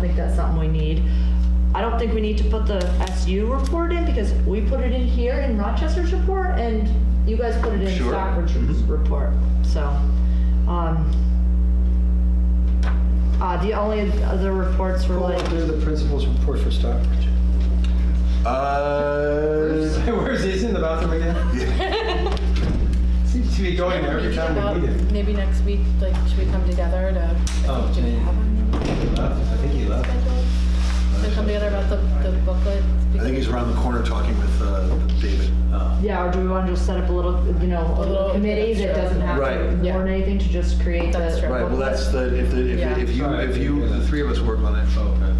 think that's something we need. I don't think we need to put the SU report in because we put it in here in Rochester's report and you guys put it in Sure. Mm-hmm. Stockbridge's report, so. um, Uh, the only other reports were Who like, went through the principal's report for Stockbridge? Uh, Where's he? He's in the bathroom again? Seems to be going there every Maybe time we about- meet him. Maybe next week, like, should we come together to, Oh, do we yeah. have one He left. I think he left. scheduled? To come together about the, the booklet? I think he's around the corner talking with uh, David. Oh. Uh, yeah, or do we want to just set up a little, you know, a little little- committee that Sure. doesn't have to Right. Yeah. warn anything to just create the. That's true. Right, well, that's the, if, the- Yeah. if if you, if you, the three of us work on it. Okay.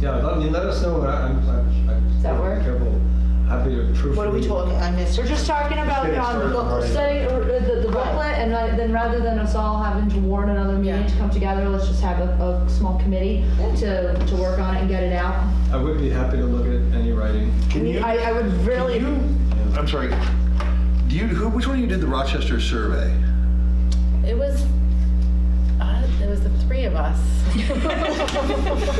Yeah, let me, let us know what I- I'm, I'm. I'm- Does that work? Careful. Happy to proof. What are we talking, I missed. We're just talking about getting um, the started booklet already. study, or uh, the the Right. booklet, and I- then rather than us all having to warn another meeting Yeah. to come together, let's just have a, a small committee Yeah. to, to work on it and get it out. I would be happy to look at any writing. I Can mean, you, I, I would really, you- I'm sorry, do you, who, which one of you did the Rochester survey? It was, uh, it was the three of us.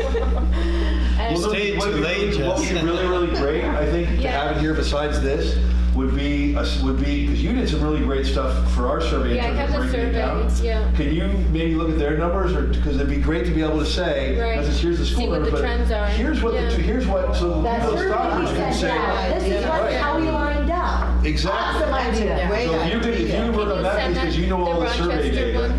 And- Well, stayed what too would be- late, What would be Jess. really, really great, I think, to Yeah. have in here besides this, would be, a s- would be, because you did some really great stuff for our survey. in Yeah, I terms of have the breaking it down. surveys, yeah. Can you maybe look at their numbers, or, because it'd be great to be able to say, Right. not just here's the school See what number, the but trends are, here's what, yeah. the- here's what, so that's those certainly doctors we can said, say. yeah, this is yeah, what- right. how we lined up. Exactly. Awesome idea, Yeah. great So if you could, if you idea. were to map because you know all the survey data.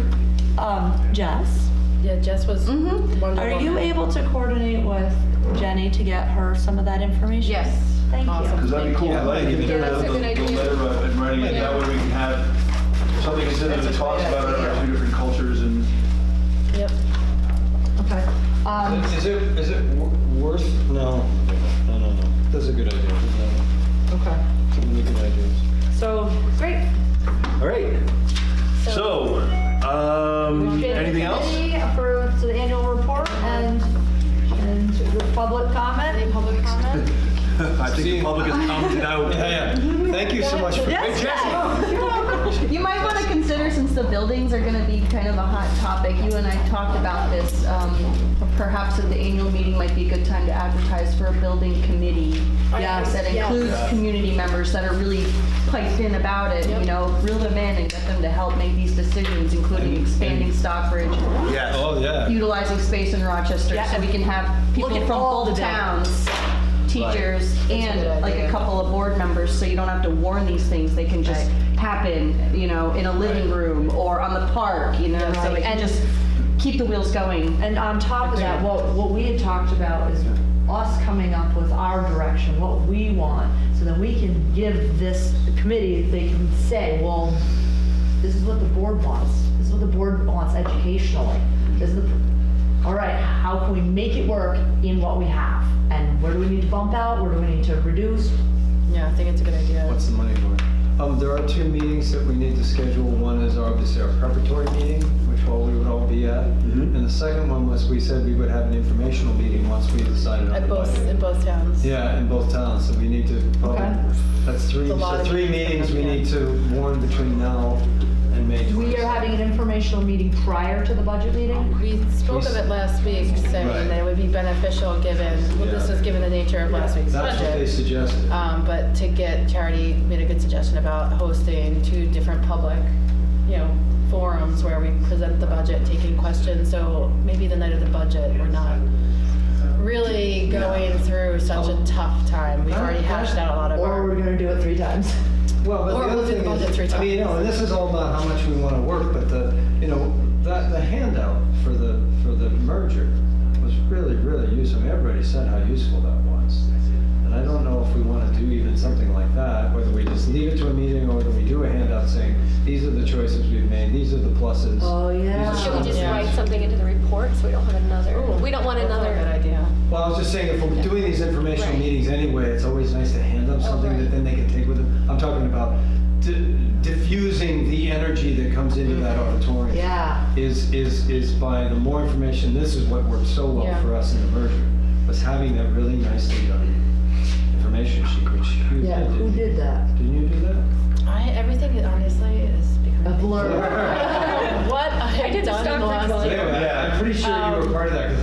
Um, Jess, Yeah, Jess was Wonder are you Woman. able to coordinate with Jenny to get her some of that information? Yes. Thank you. Awesome. Because that'd be cool, Yeah, like, like, if if they're Yeah, that's a the, good the idea. letter up and running, and that Yeah. way we can have something considered that That's a talks great about our idea. two different cultures and. Yep. Okay. Um, Is it, is it wor- worth? No, no, no, no. That's a good idea. No, okay, Too many good ideas. so, great. All right, so, um, anything else? Committee For, to the annual report and, and the public Any comment. public comment? I think the public has commented out. Yeah, yeah. Thank you so much for. Yes, yes. You might want to consider, since the buildings are going to be kind of a hot topic, you and I talked about this, um, perhaps at the annual meeting might be a good time to advertise for a building committee. Yes, That includes community members that are really piped in about it, you know, reel them in and get them to help make these decisions, including expanding Stockbridge, Yes, Oh, yeah. utilizing space in Rochester, Yeah, so we can have people at from all both the data. towns, teachers, and like a couple of board members, so you don't have to warn these things, they can just happen, you know, in a living room or on the park, you know, so it can just keep the wheels going. And on top of that, what, what we had talked about is us coming up with our direction, what we want, so that we can give this committee, they can say, well, this is what the board wants, this is what the board wants educationally, this is the, all right, how can we make it work in what we have? And where do we need to bump out, where do we need to reduce? Yeah, I think it's a good idea. What's the money for? Um, there are two meetings that we need to schedule. One is obviously our preparatory meeting, which all we would all be at. Mhm. And the second one was, we said we would have an informational meeting once we decided on At the both, budget. in both towns. Yeah, in both towns, so we need to, probably- Okay. that's three, It's a lot so of three meetings meetings, we yeah. need to warn between now and May 26th. We are having an informational meeting prior to the budget meeting? We spoke of it last week, Right. saying that it would be beneficial, given, well, this Yeah. was given the nature of last week's That's what they budget. suggested. Um, but to get, Charity made a good suggestion about hosting two different public, you know, forums where we present the budget, taking questions, so maybe the night of the budget, we're not really going through such a tough time. We've already hashed out a lot of Or we're our, gonna do it three times? Well, but Or the we'll other do thing both at three is, I mean, you know, and this is all about how much we want to work, but the, you know, that, the handout for the, for the merger was really, really useful. I mean, Everybody said how useful that was. And I don't know if we want to do even something like that, whether we just leave it to a meeting or whether we do a handout saying, these are the choices we've made, these are the pluses. Oh, these are yeah. some Should we of the just Yeah. write something into the report so we don't have another, Ooh, we don't want that's not a another. good idea. Well, I was just saying, if we're doing these informational Right. meetings anyway, it's always nice to hand Oh, up something that right. then they can take with them. I'm talking about di- diffusing the energy that comes into that auditorium. Mm-hmm. Yeah. Is, is, is by the more information, this is what worked so well Yeah. for us in the merger, was having that really nicely done information sheet, which you Yeah, did. who did that? Didn't you do that? I, everything honestly is A becoming. blur. What I I had did the done in the last Stockbridge one. year. Um, Anyway, I- I'm pretty sure you were part of that, because